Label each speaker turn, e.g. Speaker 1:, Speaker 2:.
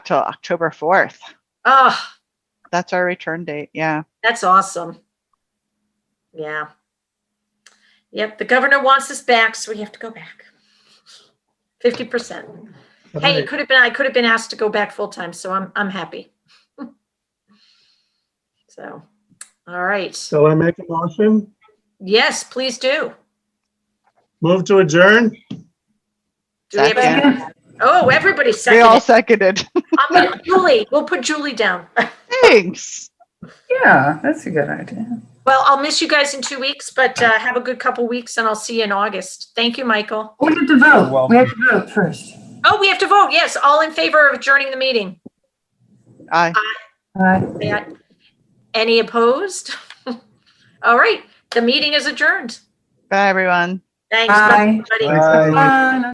Speaker 1: till October 4th.
Speaker 2: Oh,
Speaker 1: That's our return date. Yeah.
Speaker 2: that's awesome. Yeah. Yep, the governor wants us back, so we have to go back. Fifty percent. Hey, it could have been, I could have been asked to go back full-time, so I'm, I'm happy. So, all right.
Speaker 3: So I make a motion,
Speaker 2: Yes, please do.
Speaker 3: move to adjourn?
Speaker 2: Do we have a-
Speaker 1: Second.
Speaker 2: Oh, everybody
Speaker 1: We all
Speaker 2: seconded.
Speaker 1: seconded.
Speaker 2: I'm gonna- Julie, we'll put Julie down.
Speaker 1: Thanks.
Speaker 4: Yeah, that's a good idea.
Speaker 2: Well, I'll miss you guys in two weeks, but uh, have a good couple weeks and I'll see you in August. Thank you, Michael.
Speaker 4: We have to vote. We have to vote first.
Speaker 2: Oh, we have to vote. Yes, all in favor of adjourning the meeting.
Speaker 1: Aye.
Speaker 4: All right.
Speaker 2: Say aye. Any opposed? All right, the meeting is adjourned.
Speaker 1: Bye, everyone.
Speaker 2: Thanks.
Speaker 4: Bye.
Speaker 2: everybody.
Speaker 3: Aye.
Speaker 4: Bye.